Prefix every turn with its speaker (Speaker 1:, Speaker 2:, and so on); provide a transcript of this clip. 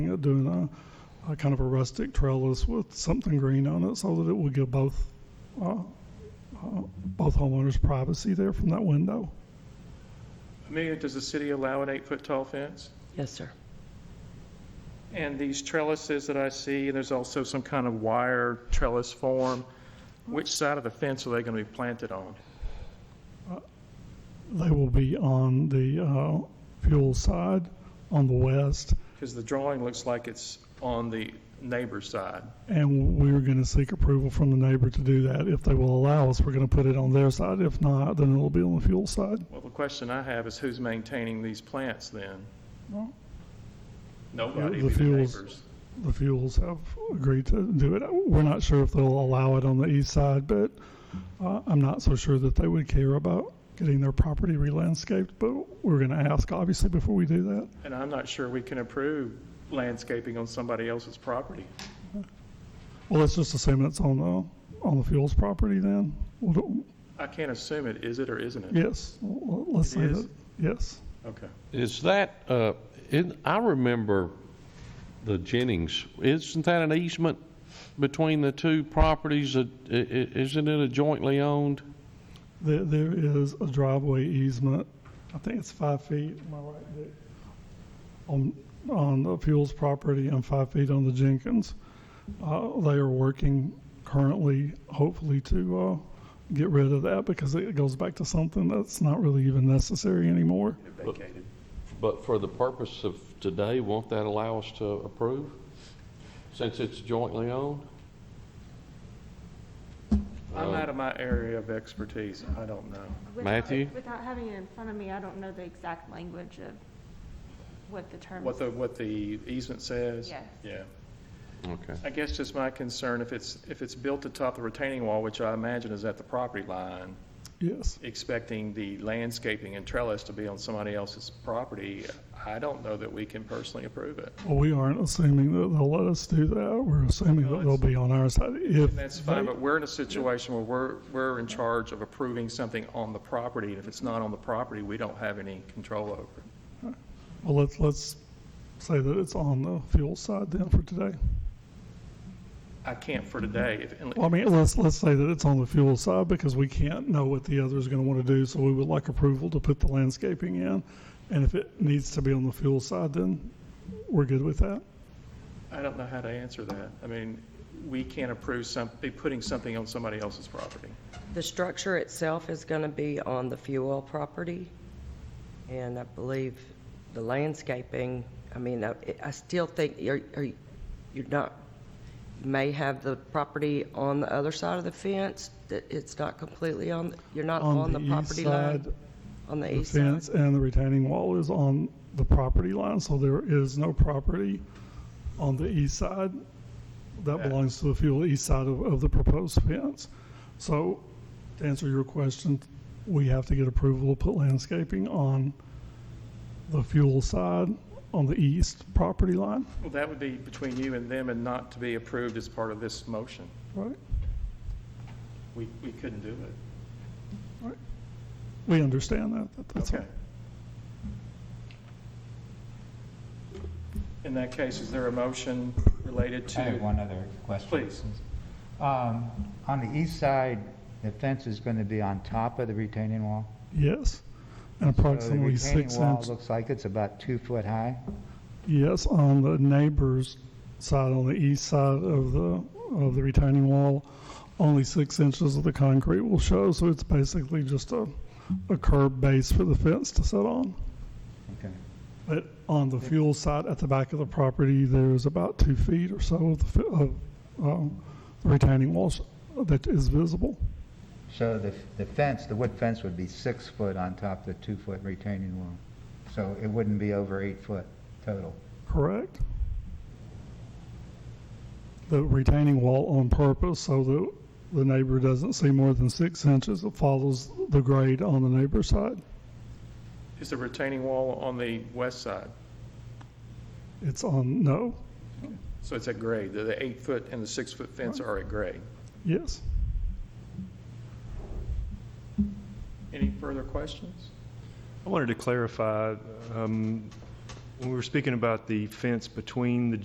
Speaker 1: at doing a, a kind of a rustic trellis with something green on it so that it would give both, uh, uh, both homeowners privacy there from that window.
Speaker 2: Amelia, does the city allow an eight-foot tall fence?
Speaker 3: Yes, sir.
Speaker 2: And these trellises that I see, and there's also some kind of wire trellis form, which side of the fence are they going to be planted on?
Speaker 1: They will be on the uh, fuel side on the west,
Speaker 2: Because the drawing looks like it's on the neighbor's side.
Speaker 1: and we're going to seek approval from the neighbor to do that. If they will allow us, we're going to put it on their side. If not, then it'll be on the fuel side.
Speaker 2: Well, the question I have is who's maintaining these plants then?
Speaker 1: Well-
Speaker 2: Nobody,
Speaker 1: The
Speaker 2: but the
Speaker 1: fields.
Speaker 2: neighbors.
Speaker 1: The fuels have agreed to do it. We're not sure if they'll allow it on the east side, but uh, I'm not so sure that they would care about getting their property re-landscaped, but we're going to ask, obviously, before we do that.
Speaker 2: And I'm not sure we can approve landscaping on somebody else's property.
Speaker 1: Well, let's just assume it's on the, on the fuels property then. Well, don't-
Speaker 2: I can't assume it, is it or isn't it?
Speaker 1: Yes, well, let's
Speaker 2: It
Speaker 1: say
Speaker 2: is?
Speaker 1: that, yes.
Speaker 2: Okay.
Speaker 4: Is that, uh, in, I remember the Jennings, isn't that an easement between the two properties? that- i- i- Isn't it a jointly owned?
Speaker 1: There, there is a driveway easement, I think it's five feet, am I right, Dick? On, on the Fuels property and five feet on the Jenkins. Uh, they are working currently, hopefully to, uh, get rid of that because it goes back to something that's not really even necessary anymore.
Speaker 2: Vacated.
Speaker 4: But for the purpose of today, won't that allow us to approve, since it's jointly owned?
Speaker 2: I'm out of my area of expertise. I don't know.
Speaker 5: Without-
Speaker 4: Matthew?
Speaker 5: Without having it in front of me, I don't know the exact language of what the term
Speaker 2: What
Speaker 5: is.
Speaker 2: the, what the easement says?
Speaker 5: Yes.
Speaker 2: Yeah.
Speaker 4: Okay.
Speaker 2: I guess just my concern, if it's, if it's built atop the retaining wall, which I imagine is at the property line,
Speaker 1: Yes,
Speaker 2: expecting the landscaping and trellis to be on somebody else's property, I don't know that we can personally approve it.
Speaker 1: well, we aren't assuming that they'll let us do that, we're assuming that they'll be on our side if.
Speaker 2: That's fine,
Speaker 1: they-
Speaker 2: but we're in a situation where we're, we're in charge of approving something on the property, and if it's not on the property, we don't have any control over it.
Speaker 1: Well, let's, let's say that it's on the fuel side then for today.
Speaker 2: I can't for today. If- unless-
Speaker 1: Well, I mean, let's, let's say that it's on the fuel side because we can't know what the other is going to want to do. So we would like approval to put the landscaping in. And if it needs to be on the fuel side, then we're good with that.
Speaker 2: I don't know how to answer that. I mean, we can't approve some, be putting something on somebody else's property.
Speaker 3: The structure itself is going to be on the fuel property, and I believe the landscaping, I mean, I I still think you're, are- you're not, you may have the property on the other side of the fence, that it's not completely on, you're not on the
Speaker 1: east
Speaker 3: property
Speaker 1: side,
Speaker 3: line? On the
Speaker 1: The
Speaker 3: east side?
Speaker 1: fence and the retaining wall is on the property line. So there is no property on the east side. That
Speaker 2: Yeah.
Speaker 1: belongs to the fuel east side of, of the proposed fence. So to answer your question, we have to get approval to put landscaping on the fuel side on the east property line,
Speaker 2: Well, that would be between you and them and not to be approved as part of this motion.
Speaker 1: right?
Speaker 2: We, we couldn't do it.
Speaker 1: We understand that. that- That's all.
Speaker 2: Okay. In that case, is there a motion related
Speaker 6: I have
Speaker 2: to?
Speaker 6: one other question.
Speaker 2: Please.
Speaker 6: Um, On the east side, the fence is going to be on top of the retaining wall?
Speaker 1: Yes. And approximately six
Speaker 6: So the retaining wall
Speaker 1: inches.
Speaker 6: looks like it's about two foot high?
Speaker 1: Yes, on the neighbor's side, on the east side of the, of the retaining wall, only six inches of the concrete will show, so it's basically just a, a curb base for the fence to sit on.
Speaker 6: Okay.
Speaker 1: But on the fuel side, at the back of the property, there's about two feet or so of the, fi- of, um, retaining walls that is visible.
Speaker 6: So the the fence, the wood fence would be six foot on top of the two foot retaining wall? So it wouldn't be over eight foot total?
Speaker 1: Correct. The retaining wall on purpose so that the neighbor doesn't see more than six inches. It follows the grade on the neighbor's side.
Speaker 2: Is the retaining wall on the west side?
Speaker 1: It's on, no,
Speaker 2: So it's at grade. The- The eight-foot and the six-foot fence are at grade.
Speaker 1: yes.
Speaker 2: Any further questions?
Speaker 7: I wanted to clarify, um, when we were speaking about the fence between the